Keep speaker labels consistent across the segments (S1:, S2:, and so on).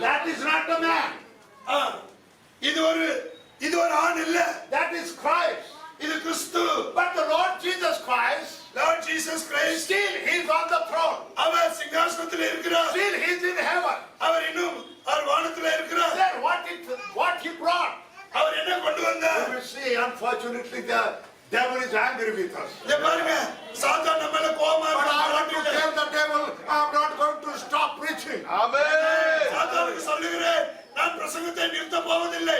S1: That is not the man.
S2: ஆ, இது ஒரு இது ஒரு ஆண் இல்ல
S1: That is Christ.
S2: இது கிறிஸ்து
S1: But the Lord Jesus Christ,
S2: Lord Jesus Christ
S1: still he is on the throne.
S2: அவர் சிங்காசனத்தில் இருக்கிறார்
S1: Still he is in heaven.
S2: அவர் இன்னும் அவர் வானத்துல இருக்கிறார்
S1: Then what it what he brought?
S2: அவர் என்ன கொண்டு வந்தார்
S1: You will see, unfortunately, the devil is angry with us.
S2: இங்க பாருங்க சாத்தான் நம்ம மேல கோபமா
S1: But
S2: இருக்கான்.
S1: I want to tell the devil, I'm not going to stop preaching.
S2: சாத்தானுக்கு சொல்லுகிறேன் நான் பிரசங்கத்தை நிறுத்த போவதில்லை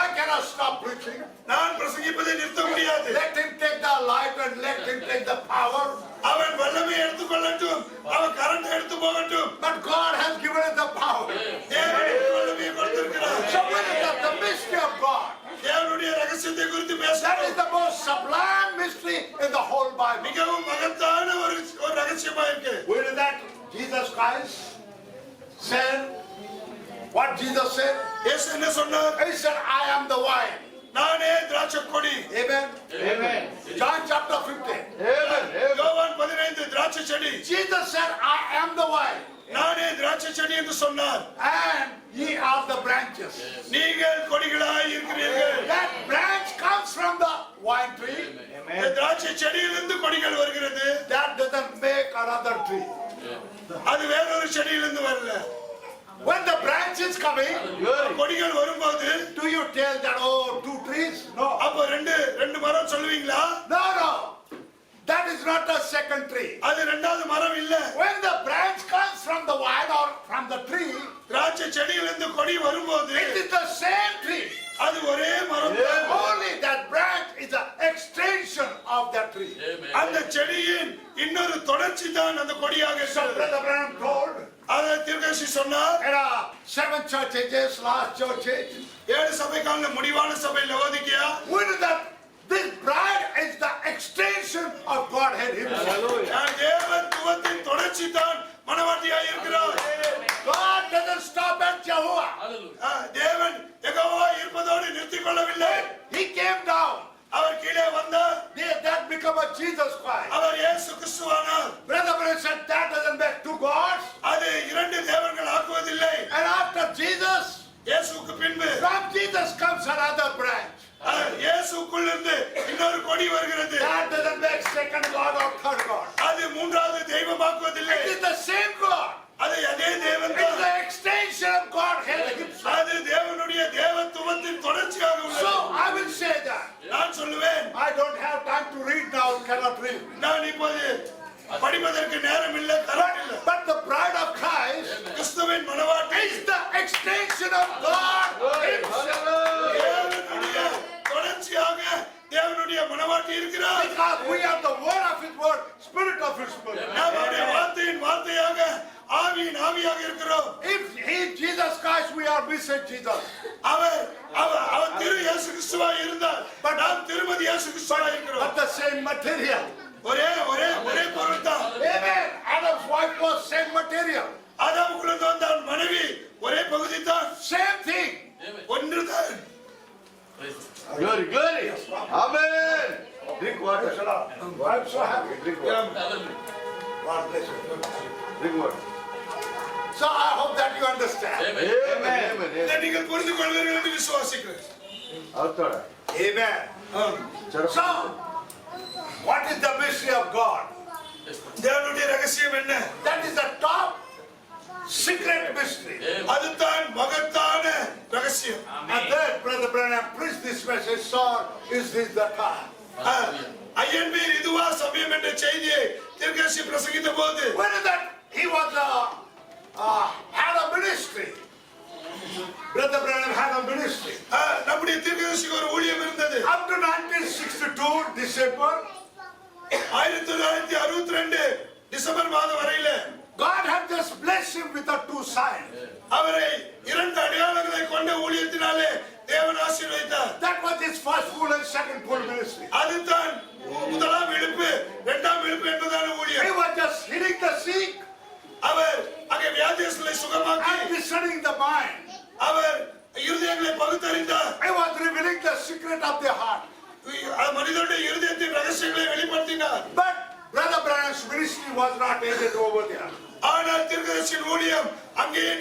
S1: I cannot stop preaching.
S2: நான் பிரசங்கிப்பதை நிறுத்த முடியாது
S1: Let him take the light and let him take the power.
S2: அவன் வல்லமை எடுத்துக்கொள்ளட்டும் அவன் கரண்ட் எடுத்து போகட்டும்
S1: But God has given us the power.
S2: தேவன் எனக்கு வல்லமையை கொடுத்திருக்கிறார்
S1: So what is that? The mystery of God.
S2: தேவனுடைய ரகசியத்தை குறித்து
S1: That is
S2: பேசுகிறோம்
S1: the most sublime mystery in the whole Bible.
S2: மிகவும் மகத்தான ஒரு ஒரு ரகசியமா இருக்கு
S1: We read that Jesus Christ said, what Jesus said?
S2: இயேசு என்ன சொன்னார்
S1: He said, I am the vine.
S2: நானே திராட்சை கொடி
S1: Amen.
S3: Amen.
S1: John chapter 15.
S2: யோவான் பதினைந்து திராட்சை செடி
S1: Jesus said, I am the vine,
S2: நானே திராட்சை செடி என்று சொன்னார்
S1: and ye are the branches.
S2: நீங்கள் கொடிகளாய் இருக்கிறீர்கள்
S1: That branch comes from the vine tree.
S2: இந்த திராட்சை செடியிலிருந்து கொடிகள் வருகிறது
S1: That doesn't make another tree.
S2: அது வேறொரு செடியிலிருந்து வரல
S1: When the branch is coming,
S2: கொடிகள் வரும்போது
S1: do you tell that, oh, two trees? No.
S2: அப்போ ரெண்டு ரெண்டு மரம் சொல்லுவீங்களா
S1: No, no. That is not the second tree.
S2: அது ரெண்டாவது மரம் இல்ல
S1: When the branch comes from the vine or from the tree,
S2: திராட்சை செடியிலிருந்து கொடி வரும்போது
S1: it is the same tree.
S2: அது ஒரே மரம்
S1: Only that branch is an extension of that tree.
S2: அந்த செடியின் இன்னொரு தொடர்ச்சி தான் அந்த கொடியாக
S1: So
S2: இருக்கிறது
S1: Brother Branham told,
S2: அதை திருக்கசி சொன்னார்
S1: There are seven church ages, last church age.
S2: ஏழு சபைக்கான முடிவான சபை Laodicea
S1: We know that this bride is the extension of Godhead Himself.
S2: நான் தேவன் துவத்தின் தொடர்ச்சி தான் மனவாட்டியாய் இருக்கிறார்
S1: God doesn't stop at Jehovah.
S2: ஆ, தேவன் எகோவா இருப்பதோடு நிறுத்திக் கொள்ளவில்லை
S1: He came down.
S2: அவர் கீழே வந்தார்
S1: They- That become a Jesus Christ.
S2: அவர் இயேசு கிறிஸ்துவானார்
S1: Brother Branham said that doesn't make two gods.
S2: அது இரண்டு தேவன்கள் ஆக்குவதில்லை
S1: And after Jesus,
S2: இயேசுக்கு பின்பு
S1: from Jesus comes another branch.
S2: அஹ், இயேசுக்குள்ளிருந்து இன்னொரு கொடி வருகிறது
S1: That doesn't make second God or third God.
S2: அது மூன்றாவது தெய்வமாக்குவதில்லை
S1: It is the same God.
S2: அது அதே தேவன்
S1: It is the extension of Godhead Himself.
S2: அது தேவனுடைய தேவத்துவத்தின் தொடர்ச்சியாக
S1: So
S2: உள்ளது
S1: I will say that.
S2: நான் சொல்லுவேன்
S1: I don't have time to read now, cannot read.
S2: நான் இப்போது படிப்பதற்கு நேரம் இல்லை
S1: But,
S2: கரம் இல்லை
S1: but the bride of Christ
S2: கிறிஸ்துவின் மனவாட்டி
S1: is the extension of God Himself.
S2: தேவனுடைய தொடர்ச்சியாக தேவனுடைய மனவாட்டி இருக்கிறார்
S1: Because we are the word of His word, spirit of His spirit.
S2: நாம் அவருடைய வார்த்தையின் வார்த்தையாக ஆவியின் ஆவியாக இருக்கிறோம்
S1: If in Jesus Christ we are missing Jesus,
S2: அவர் அவர் அவர் திரு இயேசு கிறிஸ்துவா இருந்தார் பட் நாம் திருமதி இயேசு கிறிஸ்துவா இருக்கிறோம்
S1: but the same material.
S2: ஒரே ஒரே ஒரே பொருள் தான்
S1: Amen. Adam's wife was same material,
S2: ஆதாமுக்குள்ள வந்தால் மனைவி ஒரே பகுதி தான்
S1: same thing.
S2: ஒன்று தான்
S3: Good, good. Amen. Drink water.
S1: I'm so happy.
S3: Drink water.
S1: God bless you.
S3: Drink water.
S1: So I hope that you understand.
S3: Amen. Amen. Amen.
S2: இதை நீங்கள் புரிந்து கொள்வீர்கள் என்று விசுவாசிக்கிறேன்
S3: Altora.
S1: Amen.
S2: ஆம்.
S1: So, what is the mystery of God?
S2: தேவனுடைய ரகசியம் என்ன
S1: That is the top secret mystery.
S2: அதுதான் மகத்தான ரகசியம்
S1: And then Brother Branham preached this message, Sir, is this the time?
S2: ஐஎன்பி இதுவா சமயம் என்ற செய்தியை திருக்கட்சி பிரசங்கித்த போது
S1: When is that he was uh, uh, had a ministry. Brother Branham had a ministry.
S2: ஆ, நம்முடைய திருக்கதர்சிக்கு ஒரு ஊழியம் இருந்தது
S1: Up to 1962, December,
S2: ஆயிரத்தி தொள்ளாயிரத்தி அறுபத்தி ரெண்டு டிசம்பர் மாதம் வரையில
S1: God had just blessed him with the two signs.
S2: அவரை இரண்டு அடையாளங்களை கொண்ட ஊழியத்தினாலே தேவன் ஆசீர்வதித்தார்
S1: That was his first full and second full ministry.
S2: அதுதான் முதலாம் இழுப்பு இரண்டாம் இழுப்பு என்பதான
S1: He
S2: ஊழியம்
S1: was just healing the sick
S2: அவர் அங்கே வியாதியஸ்களை சுகமாக்கி
S1: and discerning the mind.
S2: அவர் இருதயங்களை பகுத்தறிந்தார்
S1: He was revealing the secret of the heart.
S2: மனிதனுடைய இருதயத்தின் ரகசியங்களை வெளிப்படுத்தினார்
S1: But Brother Branham's ministry was not ended over there.
S2: ஆனால் திருக்கதர்சியின் ஊழியம் அங்கேயே